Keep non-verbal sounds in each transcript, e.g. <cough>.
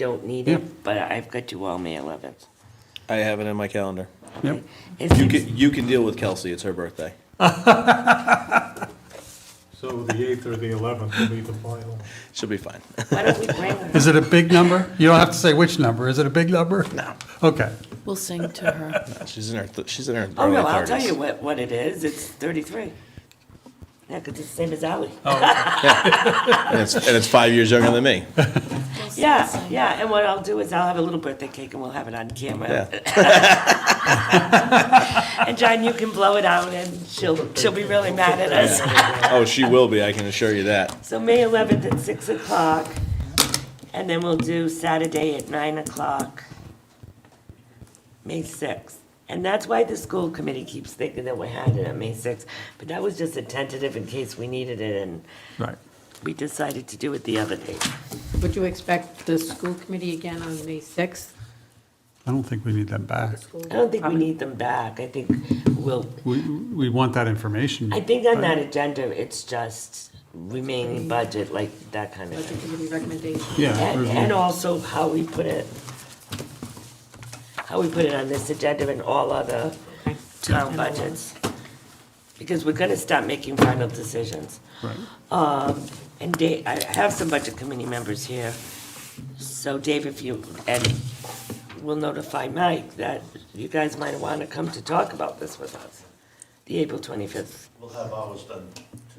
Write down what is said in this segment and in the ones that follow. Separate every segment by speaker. Speaker 1: don't need it, but I've got you all May 11th.
Speaker 2: I have it in my calendar.
Speaker 3: Yep.
Speaker 1: It
Speaker 2: You
Speaker 1: seems-
Speaker 2: can, you can deal with Kelsey, it's her birthday.
Speaker 4: So the 8th or the 11th will be the final.
Speaker 2: She'll be fine. <laughs>
Speaker 1: Why don't we bring,
Speaker 3: Is it a big number? You don't have to say which number. Is it a big number?
Speaker 2: No.
Speaker 3: Okay.
Speaker 5: We'll sing to her.
Speaker 2: Uh, She's in her, th- she's in her
Speaker 1: oh,
Speaker 2: early
Speaker 1: no, I'll tell you
Speaker 2: 30s.
Speaker 1: what, what it is. It's 33. Yeah, because it's the same as Ali.
Speaker 2: And it's, and it's five years younger than me.
Speaker 1: Yeah, yeah, and what I'll do is I'll have a little birthday cake and we'll have it on camera. And John, you can blow it out and she'll, she'll be really mad at us.
Speaker 2: Oh, she will be, I can assure you that.
Speaker 1: So May 11th at 6 o'clock, and then we'll do Saturday at 9 o'clock, May 6th. And that's why the school committee keeps thinking that we had it on May 6th, but that was just a tentative in case we needed it, and
Speaker 3: Right.
Speaker 1: we decided to do it the other day.
Speaker 6: Would you expect the school committee again on May 6th?
Speaker 3: I don't think we need them back.
Speaker 1: I don't think we need them back, I think we'll,
Speaker 3: We, we want that information.
Speaker 1: I think on that agenda, it's just remaining budget, like that kind of thing.
Speaker 6: Budget committee recommendation?
Speaker 3: Yeah.
Speaker 1: And,
Speaker 3: review.
Speaker 1: and also how we put it, how we put it on this agenda and all other town budgets. Because we're gonna start making final decisions.
Speaker 3: Right.
Speaker 1: And Dave, I have some budget committee members here. So Dave, if you, and we'll notify Mike that you guys might wanna come to talk about this with us, the April twenty-fifth
Speaker 7: We'll have ours done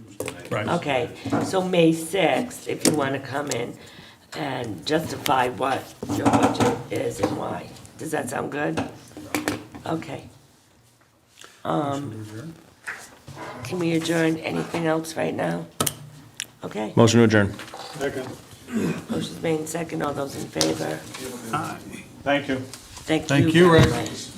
Speaker 7: Tuesday night.
Speaker 3: Right.
Speaker 1: Okay, so May 6th, if you want to come in and justify what your budget is and why. Does that sound good? Okay. Um, Can we adjourn anything else right now? Okay,
Speaker 2: Motion to adjourn.
Speaker 4: Second.
Speaker 1: motion's made second. All those in favor?
Speaker 4: Thank you.
Speaker 1: Thank you.
Speaker 3: Thank you,
Speaker 1: very
Speaker 3: Rick.
Speaker 1: much.